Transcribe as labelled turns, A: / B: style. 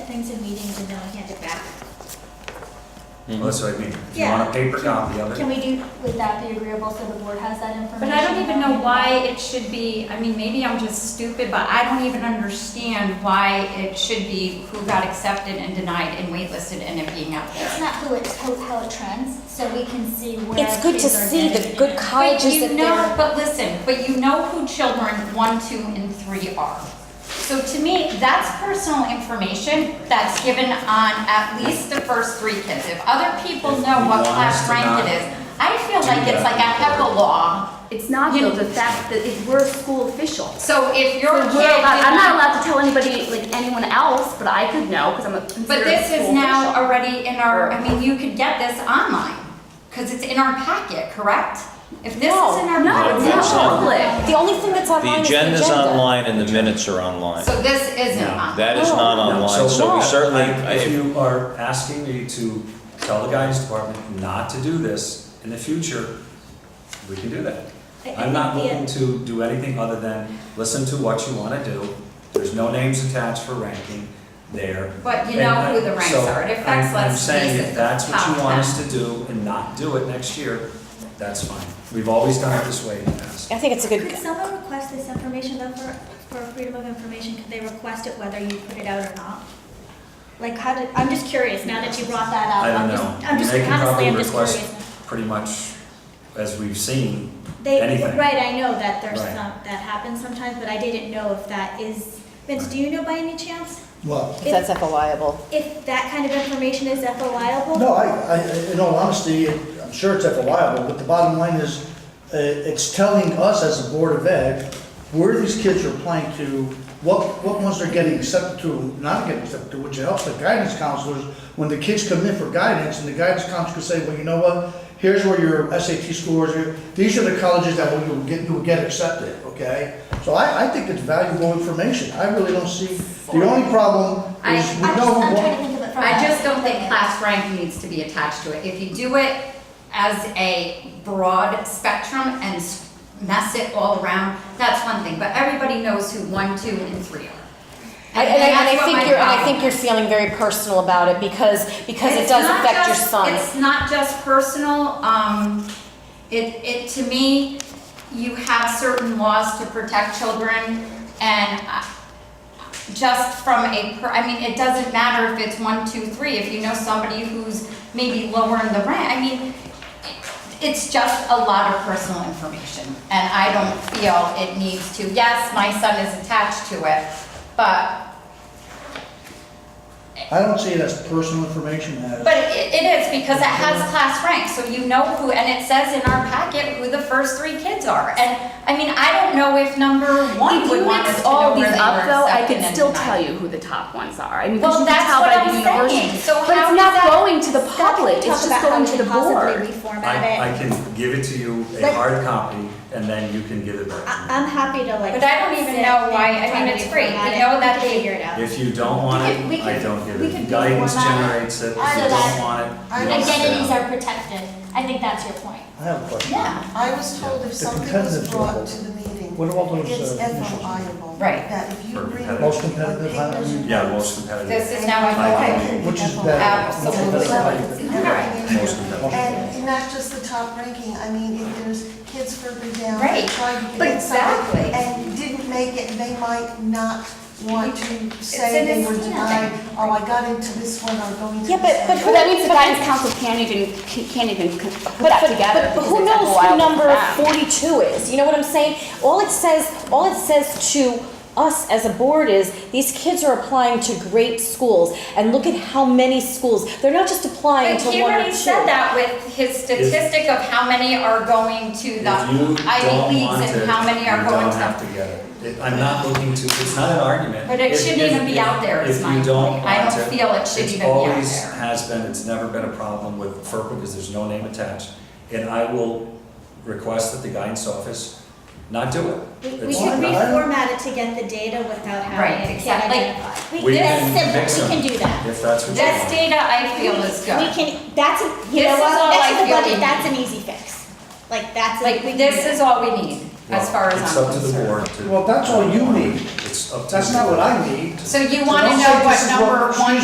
A: things in meetings and then I hand it back.
B: Well, Oh, that's what I mean. If you
A: Yeah.
B: want a paper copy of
A: Can
B: it,
A: we do, would that be agreeable so the board has that information?
C: But I don't even know why it should be, I mean, maybe I'm just stupid, but I don't even understand why it should be who got accepted and denied and waitlisted and it being out
A: It's
C: there.
A: not who it's, how how it trends, so we can see where.
D: It's good to
A: kids are
D: see the
A: getting
D: good
A: it.
C: But
D: colleges
C: you
D: that
C: know,
D: they're.
C: but listen, but you know who children one, two, and three are. So to me, that's personal information that's given on at least the first three kids. If other people
B: If
C: know
B: you
C: what
B: want us
C: class
B: to
C: rank
B: not
C: it is, I feel
B: do
C: like
B: that,
C: it's like a HEPA law.
E: It's not
C: You-
E: though, the fact that it- we're a school official.
C: So if your
E: We're
C: kid.
E: allowed- I'm
C: denies-
E: not allowed to tell anybody, like anyone else, but I could know because I'm a considered
C: But this is
E: school
C: now
E: official.
C: already in our, I mean, you could get this online, because it's in our packet, correct? If this is in our.
E: No,
C: packet,
E: it's not public.
D: The only thing that's
F: The
D: online is the agenda.
F: agenda's online and the minutes are online.
C: So this isn't on.
F: That is not
B: Oh.
D: No.
F: online, so we
D: No.
F: certainly,
B: I- If you are asking me to tell the guidance department not to do this in the future, we can do that.
A: I- I
B: I'm not
A: think the-
B: looking to do anything other than listen to what you want to do. There's no names attached for ranking there.
C: But you know who the ranks
B: uh, So,
C: are. It affects
B: I'm-
C: less
B: I'm saying
C: cases
B: if that's what you
C: top
B: want us to do and not do it next year, that's fine. We've always done it this way in the past.
D: I think it's a
A: Could
D: good,
A: someone request this information though for, for freedom of information? Could they request it whether you put it out or not? Like how did, I'm just curious now that you brought that up.
B: I
A: I'm
B: don't
A: just-
B: know.
A: I'm just,
B: They can
A: honestly,
B: probably
A: I'm just
B: request
A: curious.
B: Pretty much, as we've seen,
A: They,
B: anything.
A: right, I know that there's
B: Right.
A: some, that happens sometimes, but I didn't know if that is, Vince, do you know by any chance?
G: Well,
D: if that's FOIable.
A: If that kind of information is FOIable?
G: no, I, I, in all honesty, I'm sure it's FOIable, but the bottom line is, uh, it's telling us as a Board of Ed, where these kids are applying to, what, what ones they're getting accepted to, and not getting accepted to, which helps the guidance counselors, when the kids come in for guidance, and the guidance counselor can say, well, you know what? Here's where your SAT scores are, these are the colleges that will, you'll get, you'll get accepted, okay? So I, I think it's valuable information, I really don't see, the only problem
C: I-
G: is we
A: I'm
G: know.
A: just, I'm
G: what-
A: trying to think of it from.
C: I
A: a-
C: just don't think class rank needs to be attached to it. If you do it as a broad spectrum and s- mess it all around, that's one thing. But everybody knows who one, two, and three are.
D: And, and I, and
C: that's
D: I
C: what
D: think
C: my
D: you're, and I
C: problem
D: think you're
C: is.
D: feeling very personal about it because, because it
C: It's
D: does
C: not
D: affect your
C: just-
D: son.
C: It's not just personal, um, it, it, to me, you have certain laws to protect children, and I- just from a, per- I mean, it doesn't matter if it's one, two, three, if you know somebody who's maybe lower in the rank, I mean, it- it's just a lot of personal information, and I don't feel it needs to, yes, my son is attached to it, but
G: I don't see it as personal information as.
C: But it, it is, because it has class rank, so you know who, and it says in our packet who the first three kids are. And, I mean, I don't know if number one
E: If
C: would
E: you
C: want us
E: mix
C: to know
E: all
C: where
E: these
C: they
E: up though,
C: were
E: I
C: accepted
E: could
C: and
E: still tell
C: denied.
E: you who the top ones are. I mean,
C: Well,
E: because you
C: that's
E: can tell
C: what
E: by
C: I'm
E: the university.
C: saying. So
E: But
C: how
E: it's
C: is
E: not
C: that-
E: going to the
A: Scott, can
E: public,
A: you
E: it's
A: talk
E: just
A: about how
E: going
A: we
E: to the
A: could possibly
E: board.
A: reformat
B: I, I
A: it.
B: can give it to you, a
A: But-
B: hard copy, and then you can give it back.
A: I,
C: Uh,
B: to me.
A: I'm happy to like.
C: But I don't even
A: sit
C: know why- I
A: and
C: mean,
A: try to
C: it's free. We
A: reformat it.
C: know that
A: We
C: they-
A: figure it out.
B: If you don't want it,
A: We could- we
B: I
A: could-
B: don't give
A: we
B: it.
A: could
B: Guidance
A: reformat it.
B: generates it, if
H: Our
B: you don't
H: data-
B: want it,
H: our
B: you don't sit
H: identities
B: down.
H: are protected. I think that's your point.
G: I have a question.
C: Yeah,
I: I was told if
G: The
I: something
G: competitive
I: was brought
G: level.
I: to the meeting,
G: What about those,
I: it's
G: uh, initials?
I: FOIable.
C: Right.
I: That if you
B: For
I: bring.
B: competitive.
G: Most competitive, I mean-
B: Yeah, most competitive.
C: this is now
B: Okay.
C: a.
G: Which is better?
C: Absolutely.
G: Which is better?
B: Most competitive.
I: And not just the top ranking, I mean, if there's kids further down.
C: Right.
I: Trying to
C: But
I: get inside
C: exactly.
I: and didn't make it, they might not want to
C: in
I: say they
C: his
I: were
C: hand.
I: denied, oh, I got into this one, I'm going to this
D: Yeah,
I: one.
D: but- but
E: But that means the guidance council can't even, can't even c- put
D: But,
E: that
D: but,
E: together.
D: but, but
E: because
D: who
E: it's
D: knows
E: FOIable
D: who number
E: for them.
D: 42 is? You know what I'm saying? All it says, all it says to us as a board is these kids are applying to great schools, and look at how many schools. They're not just applying
C: But
D: to
C: he
D: one or
C: already
D: two.
C: said that with his statistic of how many are going to
B: If
C: the
B: you don't
C: Ivy
B: want
C: leagues
B: it,
C: and how many are
B: you
C: going
B: don't have
C: to.
B: to get it. It- I'm not looking to, it's not an argument.
C: But it
B: If-
C: shouldn't
B: if-
C: even be
B: if-
C: out there, is
B: if
C: my
B: you don't
C: point. I
B: want
C: don't feel it should
B: it's
C: even be out
B: always
C: there.
B: has been, it's never been a problem with FERPA because there's no name attached. And I will request that the guidance office not do
A: We
B: it.
A: we
B: It's
A: should
B: not-
A: reformat it to get the data without
C: Right,
A: having a kid
C: exactly.
A: identified.
B: We
A: that's
B: can
A: simple.
B: mix
A: We
B: them.
A: can do that.
B: If that's what you
C: This
B: want.
C: data I feel is good.
A: We can, that's, a you
C: This
A: know
C: is
A: what,
C: all
A: next
C: I
A: to the
C: feel we
A: budget,
C: need.
A: that's an easy fix. Like, that's. a-
C: Like,
A: we can do
C: this
A: that.
C: is all we need, as
B: Well,
C: far as I'm
B: It's
C: concerned.
B: up to the board to.
G: Well, that's all you need.
B: It's up to.
G: That's
B: the
G: not what
B: board.
G: I need.
C: So you
G: So
C: wanna
G: don't
C: know
G: say
C: what
G: this is
C: number
G: excuse
C: one